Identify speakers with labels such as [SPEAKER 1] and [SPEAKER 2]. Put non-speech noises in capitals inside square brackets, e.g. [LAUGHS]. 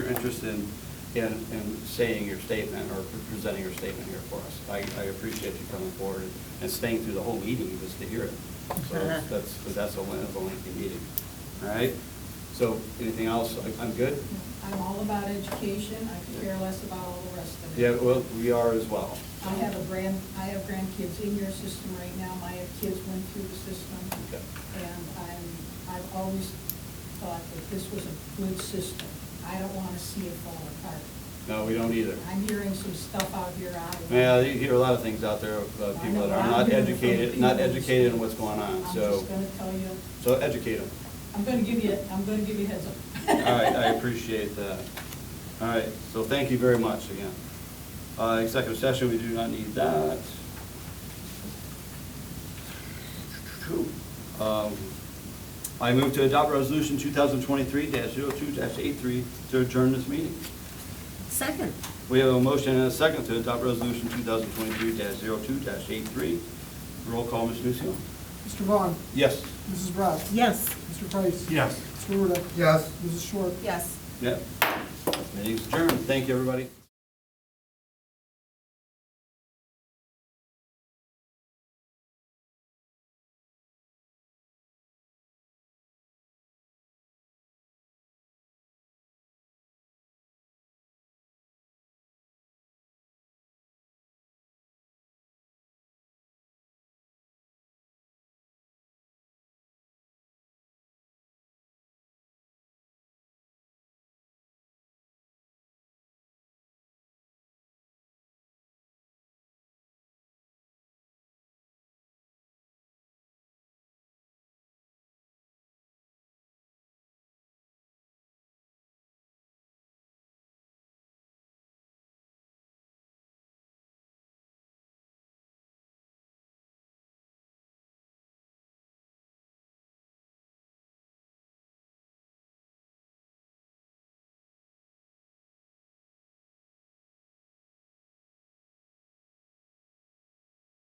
[SPEAKER 1] interest in, in, in saying your statement or presenting your statement here for us. I, I appreciate you coming forward and staying through the whole meeting just to hear it. So
[SPEAKER 2] Uh-huh.
[SPEAKER 1] that's, that's- 'cause that's a, that's a lengthy meeting. All right? So anything else? I- I'm good?
[SPEAKER 2] I'm all about education, I could care less about all the rest of it.
[SPEAKER 1] Yeah, well, we are as well.
[SPEAKER 2] I have a grand, I have grandkids in your system right now, my kids went through the system.
[SPEAKER 1] Okay.
[SPEAKER 2] And I'm, I've always thought that this was a good system. I don't want to see it fall apart.
[SPEAKER 1] No, we don't either.
[SPEAKER 2] I'm hearing some stuff out here I.
[SPEAKER 1] Yeah, you hear a lot of things out there about
[SPEAKER 2] I
[SPEAKER 1] people
[SPEAKER 2] know
[SPEAKER 1] that are
[SPEAKER 2] I'm
[SPEAKER 1] not
[SPEAKER 2] hearing from
[SPEAKER 1] educated, not
[SPEAKER 2] people.
[SPEAKER 1] educated in what's going on,
[SPEAKER 2] I'm
[SPEAKER 1] so,
[SPEAKER 2] just going to tell you,
[SPEAKER 1] so educate them.
[SPEAKER 2] I'm going to give you, I'm going to give you a heads up.
[SPEAKER 1] All right,
[SPEAKER 2] [LAUGHS]
[SPEAKER 1] I appreciate that. All right, so thank you very much again. Uh, Executive session, we do not need that. Um, I move to adopt resolution 2023-02-83 to adjourn this meeting.
[SPEAKER 3] Second.
[SPEAKER 1] We have a motion and a second to adopt resolution 2023-02-83. Roll call, Ms. Nusio.
[SPEAKER 4] Mr. Vaughn.
[SPEAKER 1] Yes.
[SPEAKER 4] Mrs. Bratz.
[SPEAKER 3] Yes.
[SPEAKER 4] Mr. Price.
[SPEAKER 5] Yes.
[SPEAKER 4] Mr. Ruda.
[SPEAKER 5] Yes.
[SPEAKER 4] Mrs. Short.
[SPEAKER 3] Yes.
[SPEAKER 1] Yep. Meeting's adjourned. Thank you, everybody.